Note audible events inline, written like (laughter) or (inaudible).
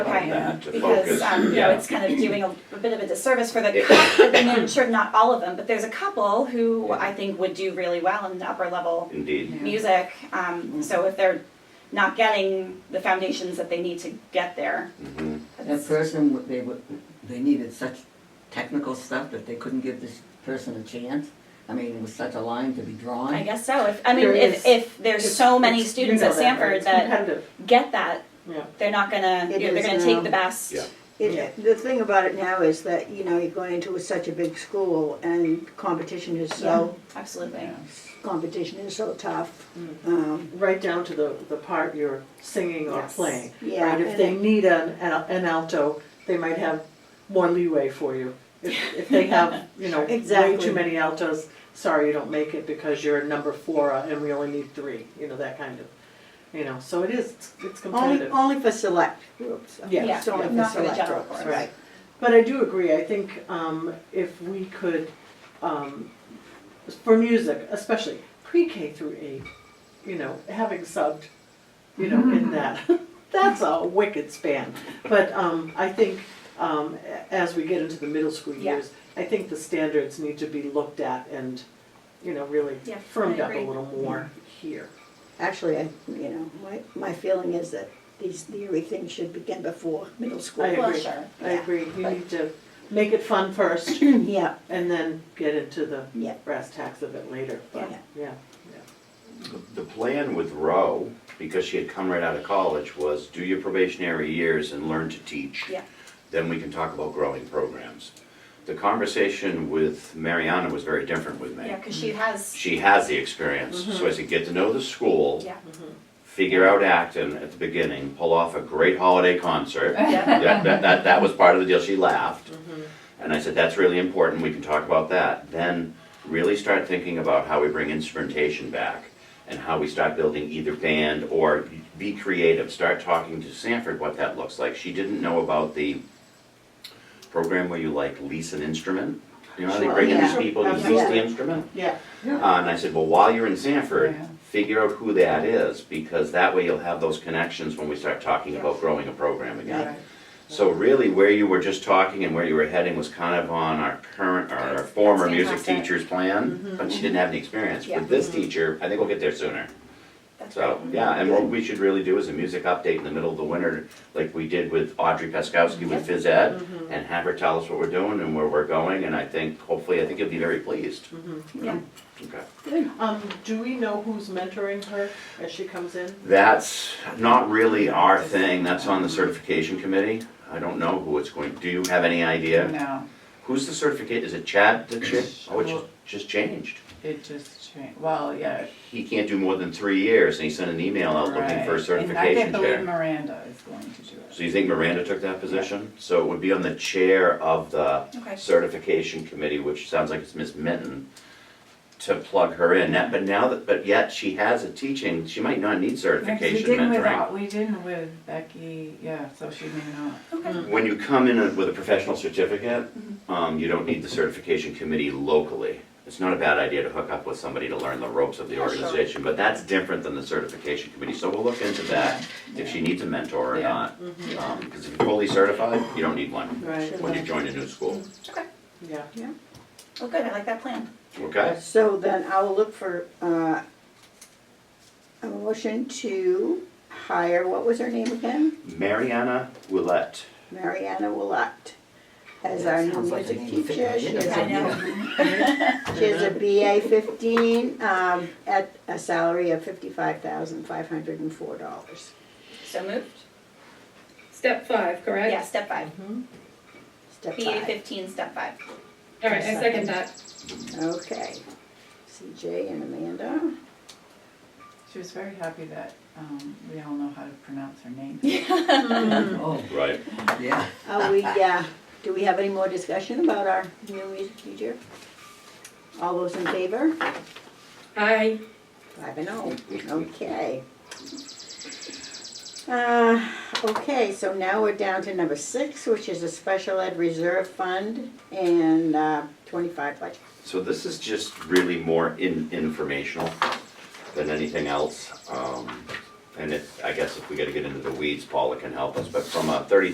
Okay, that to because, focus. um, you know, Yeah. it's kind of doing a a bit of a disservice for the It- cou- I mean, sure, not all of them, but there's a couple who I think would do really well in the upper level Indeed. music. Um, so if they're not getting the foundations that they need to get there. Mhm. That person, would- they would, they needed such technical stuff that they couldn't give this person a chance? I mean, it was such a line to be drawn. I guess so, if, I mean, There if, is- if there's so many students at Sanford Stanford (laughs) that get that, Yeah. they're not gonna, It you know, they're is gonna take now. the best. Yeah. It, the thing about it now is that, you know, you're going into such a big school and competition is so, Absolutely. competition is so tough. Um, Right down to the, the part you're singing or Yes. playing. Yeah, Right, if and they it- need an, an an alto, they might have more leeway for you. (laughs) If, if they have, you know, way Exactly. too many altos, sorry, you don't make it because you're number four uh, and we only need three, you know, that kind of, you know, so it is, it's- it's Only, competitive. only for select groups. Yeah, It's only yeah. for Not for the select general groups, course. Right. But I do agree, I think um, if we could, um, for music especially, pre-K through eight, you know, having subbed, you know, in that, (laughs) that's a wicked span. But um, I think um, a- as we get into the middle school Yeah. years, I think the standards need to be looked at and, you know, really Yeah, firmed I up a agree. little more here. Actually, I, you know, my, my feeling is that these theory things should begin before middle school. I Well, agree. sure. I Yeah. agree, you need to make it fun (clears throat) first Yeah, and then get into the yeah, brass tacks of it later, but, Yeah. yeah. The plan with Roe, because she had come right out of college, was do your probationary years and learn to teach. Yeah. Then we can talk about growing programs. The conversation with Mariana was very different with me. Yeah, cause she has, She has the experience, so I said, get to know the school. yeah, Figure out Acton at the beginning, pull off a great (laughs) holiday concert. yeah, That, that, that, that was part of the deal, she laughed. And I said, that's really important, we can talk about that. Then really start thinking about how we bring instrumentation back and how we start building either band or be creative, start talking to Sanford what that looks like. She didn't know about the program where you like lease an instrument. You know, how they Sure, bring in these yeah. people, you lease the Absolutely. instrument. Yeah, Uh, and I said, well, while you're in Sanford, Yeah. figure out who that is, because that way you'll have those connections when we start talking about growing a program again. Right. So really, where you were just talking and where you were heading was kind of on our current, or our former That's music fantastic. Mm-hmm, teacher's plan, but she didn't have any experience. Yeah. Mm-hmm. With this teacher, I think we'll get there sooner. that's right. So, yeah, and what we should really do is a music update in the middle of the winter, like we did with Audrey Peskowski with phys ed, Mm-hmm. and have her tell us what we're doing and where we're going, and I think, hopefully, I think you'll be very pleased. Mm-hmm. Yeah. Okay. um, do we know who's mentoring her as she comes in? That's not really our thing, that's on the certification committee. I don't know who it's going, do you have any idea? No, Who's the certificate, is it Chad that cha- oh, it just, just changed. it just changed, well, yeah. He can't do more than three years, and he sent an email out looking for a right. certification And I can't believe chair. Miranda is going to do it. So you think Miranda took that position? So it would be on the chair of the Okay. certification committee, which sounds like it's Miss Minton, to plug her in. Now- But now that, but yet she has a teaching, she might not need Because certification We didn't with, mentoring. Al- we didn't with Becky, yeah, so she may not. Okay, When you come in with a professional certificate, um, you don't need the certification committee locally. It's not a bad idea to hook up with somebody to learn the ropes of the Yeah, sure. organization, but that's different than the certification committee, so we'll look into that, if she needs a mentor or Yeah. not. Because if you're fully certified, you don't need one Right. when you join a new school, okay, Yeah. well, Oh, good, I like that plan. okay? so then I'll look for, uh, a motion to hire, what was her name again? Mariana Willett. Mariana Willett as our new Sounds like a music name fit teacher. right She in, has I doesn't it? a, know. (laughs) she has a BA fifteen, um, at a salary of fifty-five thousand five hundred and four dollars. So moved? Step five, correct? Yeah, step five. Step BA five. fifteen, step five. All right, I second that. Okay. CJ and Amanda. She was very happy that, um, we all know how to pronounce her name. Oh, Right. yeah. Are we, uh, do we have any more discussion about our new music teacher? All those in favor? Aye. Five and oh, okay. Uh, okay, so now we're down to number six, which is a special ed reserve fund and, uh, twenty-five budget. So this is just really more in, informational than anything else. Um, and if, I guess if we gotta get into the weeds, Paula can help us, but from a thirty